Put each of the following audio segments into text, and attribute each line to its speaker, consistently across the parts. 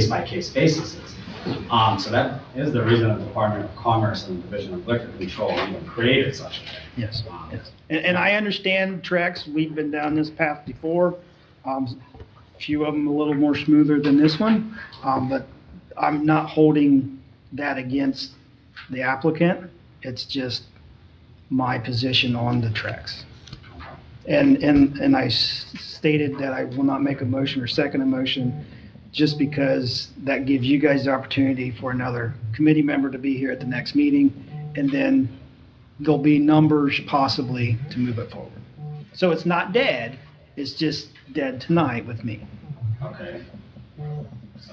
Speaker 1: case-by-case basis is. Um, so that is the reason the Department of Commerce and the Division of Liquor Control even created such a thing.
Speaker 2: Yes.
Speaker 1: Um,
Speaker 2: Yes. And, and I understand Trex, we've been down this path before. Um, a few of them a little more smoother than this one. Um, but I'm not holding that against the applicant. It's just my position on the Trex. And, and, and I s- stated that I will not make a motion or second a motion just because that gives you guys the opportunity for another committee member to be here at the next meeting. And then there'll be numbers possibly to move it forward. So it's not dead, it's just dead tonight with me.
Speaker 1: Okay,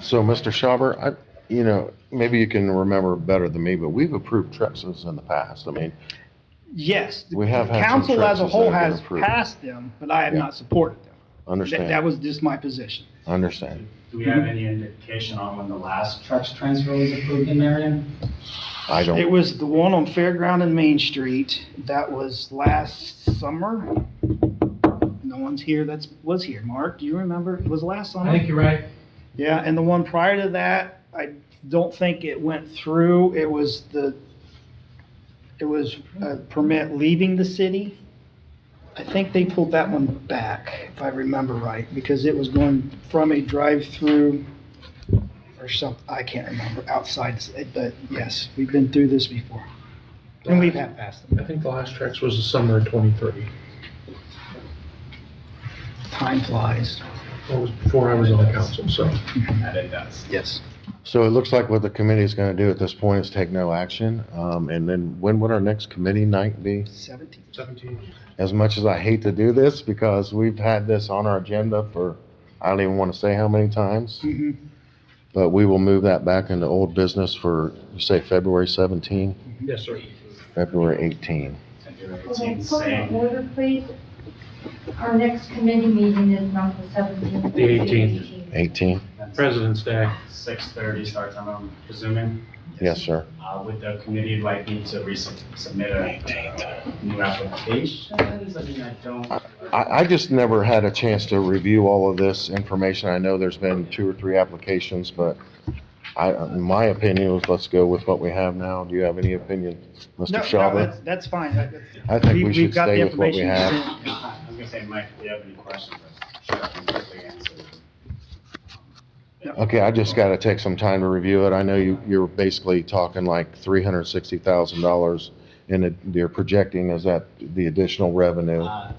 Speaker 3: So, Mr. Schauber, I, you know, maybe you can remember better than me, but we've approved Trexas in the past. I mean,
Speaker 2: Yes, the
Speaker 3: We have had some
Speaker 2: council as a
Speaker 3: stretches
Speaker 2: whole
Speaker 3: that have been
Speaker 2: has
Speaker 3: approved.
Speaker 2: passed them, but I have
Speaker 3: Yeah.
Speaker 2: not supported them. That, that
Speaker 3: understand,
Speaker 2: was just my position.
Speaker 3: understand.
Speaker 1: do we have any indication on when the last Trex transfer was approved in Marion?
Speaker 3: I
Speaker 2: It
Speaker 3: don't,
Speaker 2: was the one on Fairground and Main Street, that was last summer. No one's here that's, was here, Mark, do you remember? It was last summer?
Speaker 4: I think you're right.
Speaker 2: Yeah, and the one prior to that, I don't think it went through. It was the, it was a permit leaving the city. I think they pulled that one back, if I remember right, because it was going from a drive-through or some, I can't remember, outside, but yes, we've been through this before. And we've had past them.
Speaker 4: I think the last Trex was the summer of twenty-three.
Speaker 2: Time flies.
Speaker 4: That was before I was on the council, so.
Speaker 1: That it does.
Speaker 2: Yes.
Speaker 3: so it looks like what the committee is gonna do at this point is take no action. Um, and then when would our next committee night be?
Speaker 2: Seventeen.
Speaker 4: Seventeen.
Speaker 3: As much as I hate to do this, because we've had this on our agenda for, I don't even wanna say how many times,
Speaker 2: Mhm.
Speaker 3: but we will move that back into old business for, you say, February seventeen,
Speaker 4: Yes, sir.
Speaker 3: February eighteen.
Speaker 1: February
Speaker 5: Okay,
Speaker 1: 18th,
Speaker 5: point of
Speaker 1: same.
Speaker 5: order, please. Our next committee meeting is not the 17th.
Speaker 4: The 18th.
Speaker 3: Eighteen?
Speaker 1: That's
Speaker 4: President's Day.
Speaker 1: 6:30 start time, I'm presuming.
Speaker 3: Yes, sir.
Speaker 1: Uh, would the committee like me to resubmit a uh, new application? I mean, I don't.
Speaker 3: I, I just never had a chance to review all of this information. I know there's been two or three applications, but I, my opinion was let's go with what we have now. Do you have any opinion,
Speaker 2: No,
Speaker 3: Mr.
Speaker 2: no,
Speaker 3: Schauber?
Speaker 2: that's, that's fine. That- that's-
Speaker 3: I think we
Speaker 2: we've
Speaker 3: should
Speaker 2: got the
Speaker 3: stay with what we
Speaker 2: information you
Speaker 3: have.
Speaker 2: sent.
Speaker 1: I was gonna say, Mike, do you have any questions? Sure, I can quickly answer.
Speaker 3: Okay, I just gotta take some time to review it. I know you, you're basically talking like three hundred and sixty thousand dollars and it- they're projecting is that the additional revenue?
Speaker 1: Uh,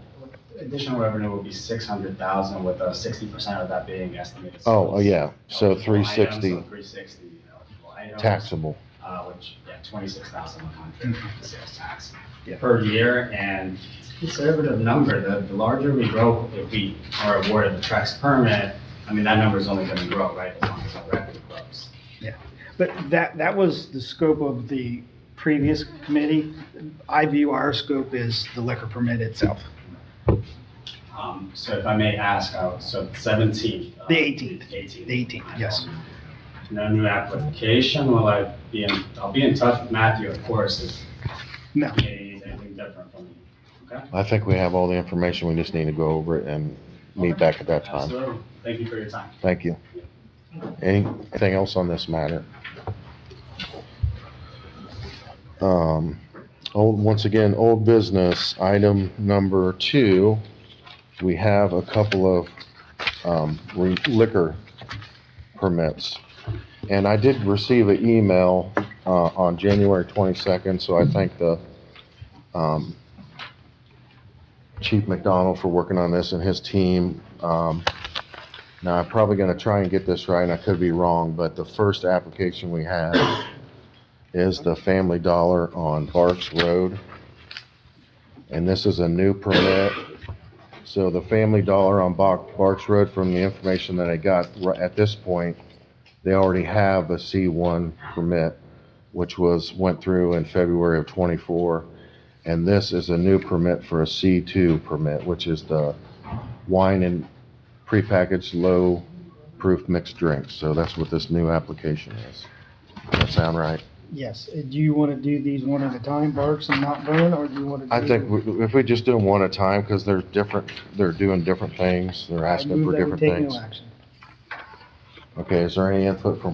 Speaker 1: Additional revenue will be 600,000 with uh, 60% of that being estimated.
Speaker 3: Oh, oh, yeah, so
Speaker 1: Eligible
Speaker 3: three
Speaker 1: items,
Speaker 3: sixty
Speaker 1: so 360 eligible items,
Speaker 3: taxable.
Speaker 1: uh, Which, yeah, 26,100 sales tax
Speaker 2: Yeah.
Speaker 1: per year. And it's a conservative number, the the larger we grow, if we are awarded the Trex permit, I mean, that number's only going to grow, right? As long as our revenue grows.
Speaker 2: But that, that was the scope of the previous committee. I view our scope as the liquor permit itself,
Speaker 1: Um, So if I may ask, uh, so 17th. uh,
Speaker 2: The 18th.
Speaker 1: 18th.
Speaker 2: the 18th, yes.
Speaker 1: No new application, will I be in, I'll be in touch with Matthew, of course, if
Speaker 2: No,
Speaker 1: he needs anything different from me. Okay?
Speaker 3: I think we have all the information. We just need to go over it and meet back at that time.
Speaker 1: Absolutely. Thank you for your time.
Speaker 3: Thank you. Anything else on this matter? Um, old, once again, old business, item number two, we have a couple of, um, re- liquor permits. And I did receive an email, uh, on January twenty-second, so I thank the, um, Chief McDonald for working on this and his team. Um, now, I'm probably gonna try and get this right, and I could be wrong, but the first application we have is the Family Dollar on Barks Road. And this is a new permit. So the Family Dollar on Bar- Barks Road, from the information that I got, ri- at this point, they already have a C1 permit, which was, went through in February of '24. And this is a new permit for a C2 permit, which is the wine and prepackaged low-proof mixed drinks. So that's what this new application is. Does that sound right?
Speaker 2: yes. Uh, Do you want to do these one at a time, Barks and Mount Vernon, or do you want to?
Speaker 3: I think we- if we just do them one at a time, because they're different, they're doing different things, they're asking for different
Speaker 2: Take
Speaker 3: things.
Speaker 2: no action.
Speaker 3: Okay, is there any input from